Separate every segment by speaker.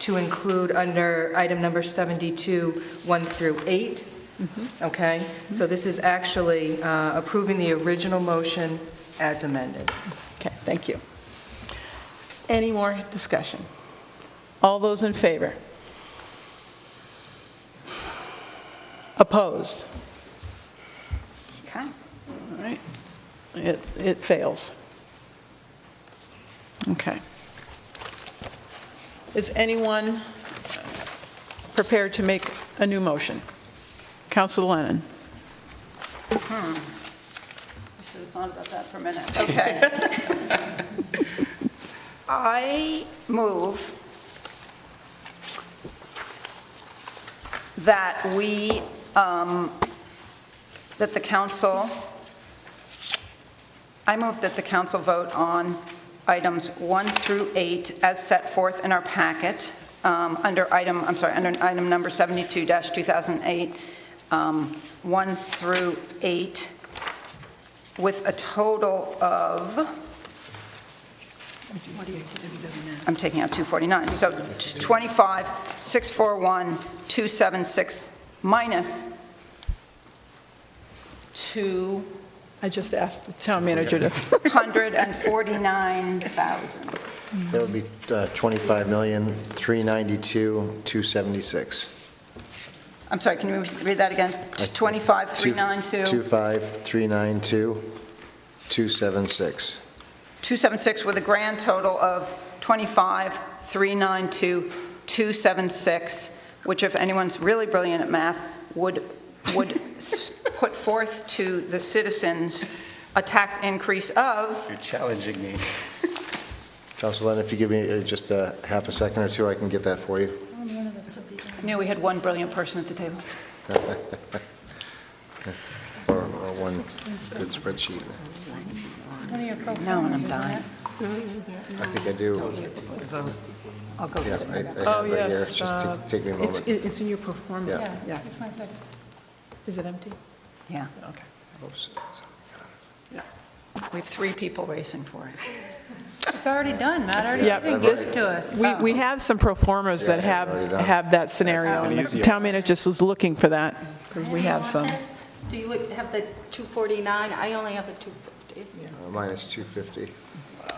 Speaker 1: to include under item number 72, 1 through 8, okay? So this is actually uh, approving the original motion as amended.
Speaker 2: Okay, thank you. Any more discussion? All those in favor? Opposed?
Speaker 3: Okay.
Speaker 2: All right, it, it fails. Okay. Is anyone prepared to make a new motion? Council Lennon?
Speaker 3: Should have thought about that for a minute.
Speaker 4: Okay. I move that we, um, that the council, I move that the council vote on items 1 through 8 as set forth in our packet, um, under item, I'm sorry, under item number 72-2008, um, 1 through 8, with a total of, I'm taking out 249, so t- 25, 641, 276, minus 249,000.
Speaker 2: I just asked the town manager to,
Speaker 5: That would be uh, 25,392,276.
Speaker 4: I'm sorry, can you read that again? 25, 392,
Speaker 5: 25,392,276.
Speaker 4: 276, with a grand total of 25, 392, 276, which if anyone's really brilliant at math, would, would s- put forth to the citizens a tax increase of
Speaker 6: You're challenging me.
Speaker 5: Council Lennon, if you give me uh, just a half a second or two, I can get that for you.
Speaker 4: I knew we had one brilliant person at the table.
Speaker 5: Or or one good spreadsheet.
Speaker 4: No, and I'm dying.
Speaker 5: I think I do.
Speaker 4: I'll go
Speaker 5: Yeah,
Speaker 4: get
Speaker 5: I- I
Speaker 4: it.
Speaker 5: have
Speaker 2: Oh,
Speaker 5: it here.
Speaker 2: yes,
Speaker 5: Just
Speaker 2: uh,
Speaker 5: take- take me a
Speaker 2: it's,
Speaker 5: moment.
Speaker 2: it's in your performance.
Speaker 5: Yeah.
Speaker 2: Yeah. Is it empty?
Speaker 4: Yeah,
Speaker 2: Okay.
Speaker 5: Uh,
Speaker 4: we have three people racing for it.
Speaker 3: It's already done, Matt already
Speaker 2: Yeah.
Speaker 3: gave this to us.
Speaker 2: We, we have some performers that
Speaker 5: Yeah,
Speaker 2: have,
Speaker 5: already done.
Speaker 2: have that scenario. and the Town manager just was looking for that, because we have some.
Speaker 3: Do you have the 249? I only have the 250.
Speaker 5: Uh, Minus 250.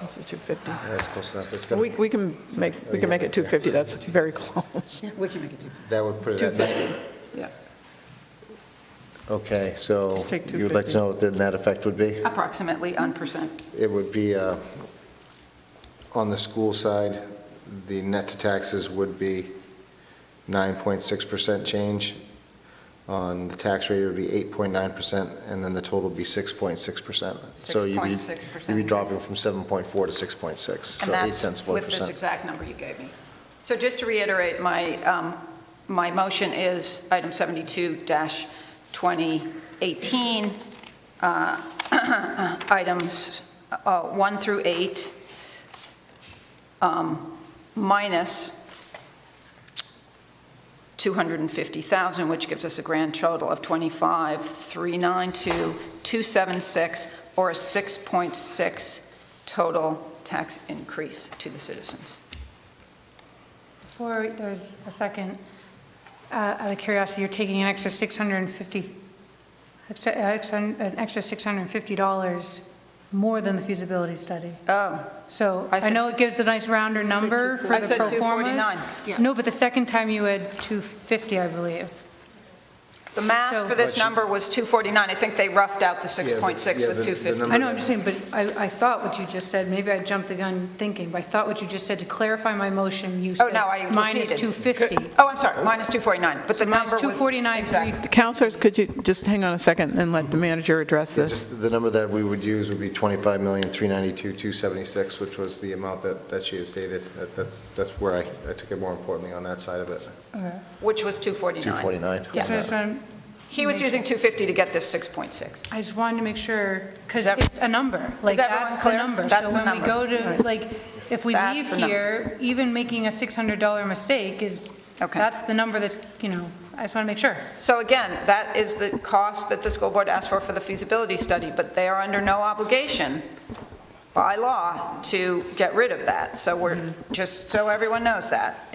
Speaker 2: This is 250.
Speaker 5: That's close enough. It's gonna-
Speaker 2: We, we can make, we can make it 250, that's very close.
Speaker 4: We can make it do.
Speaker 5: That would put it at 90.
Speaker 2: Yeah.
Speaker 5: Okay, so
Speaker 2: Just take
Speaker 5: you would like
Speaker 2: 250.
Speaker 5: to know what the net effect would be?
Speaker 4: Approximately, 1%.
Speaker 5: It would be, uh, on the school side, the net to taxes would be 9.6% change. On the tax rate, it would be 8.9%, and then the total would be 6.6%. So you'd be-
Speaker 4: 6.6%.
Speaker 5: You'd be dropping from 7.4 to 6.6, so
Speaker 4: And
Speaker 5: 8
Speaker 4: that's
Speaker 5: cents of 1%.
Speaker 4: with this exact number you gave me. So just to reiterate, my, um, my motion is item 72-2018, uh, items uh, 1 through 8, um, minus 250,000, which gives us a grand total of 25,392,276, or a 6.6 total tax increase to the citizens.
Speaker 7: Before there's a second, uh, out of curiosity, you're taking an extra 650, ex- uh, ex- an extra $650 more than the feasibility study.
Speaker 4: Oh,
Speaker 7: So
Speaker 4: I
Speaker 7: I
Speaker 4: said-
Speaker 7: know it gives a nice rounder number for
Speaker 4: I
Speaker 7: the
Speaker 4: said
Speaker 7: pro formas.
Speaker 4: 249, yeah.
Speaker 7: No, but the second time you had 250, I believe.
Speaker 4: the math
Speaker 7: So-
Speaker 4: for this number was 249. I think they roughed out the 6.6
Speaker 5: yeah,
Speaker 4: with
Speaker 5: the- the
Speaker 4: 250.
Speaker 5: number-
Speaker 7: I know, I'm just saying, but I, I thought what you just said, maybe I jumped the gun thinking, but I thought what you just said, to clarify my motion, you
Speaker 4: Oh,
Speaker 7: said.
Speaker 4: no, I
Speaker 7: Mine is
Speaker 4: repeated.
Speaker 7: 250.
Speaker 4: Oh, I'm sorry, minus 249, but the
Speaker 7: Mine's
Speaker 4: number was...
Speaker 7: 249,
Speaker 4: Exactly.
Speaker 2: Counselors, could you just hang on a second and let the manager address this?
Speaker 5: Just the number that we would use would be 25,392,276, which was the amount that, that she has stated. That- that- That's where I, I took it more importantly on that side of it.
Speaker 4: Which was 249.
Speaker 5: 249.
Speaker 4: Yeah.
Speaker 7: So I just wanted-
Speaker 4: He was using 250 to get this 6.6.
Speaker 7: I just wanted to make sure, because
Speaker 4: Is ev-
Speaker 7: it's a number, like,
Speaker 4: everyone
Speaker 7: that's the
Speaker 4: clear?
Speaker 7: number.
Speaker 4: That's the
Speaker 7: So when we
Speaker 4: number.
Speaker 7: go to, like, if we
Speaker 4: That's
Speaker 7: leave
Speaker 4: the number.
Speaker 7: here, even making a $600 mistake is,
Speaker 4: Okay.
Speaker 7: that's the number that's, you know, I just want to make sure.
Speaker 4: So again, that is the cost that the school board asked for for the feasibility study, but they are under no obligation by law to get rid of that. So we're, just so everyone knows that.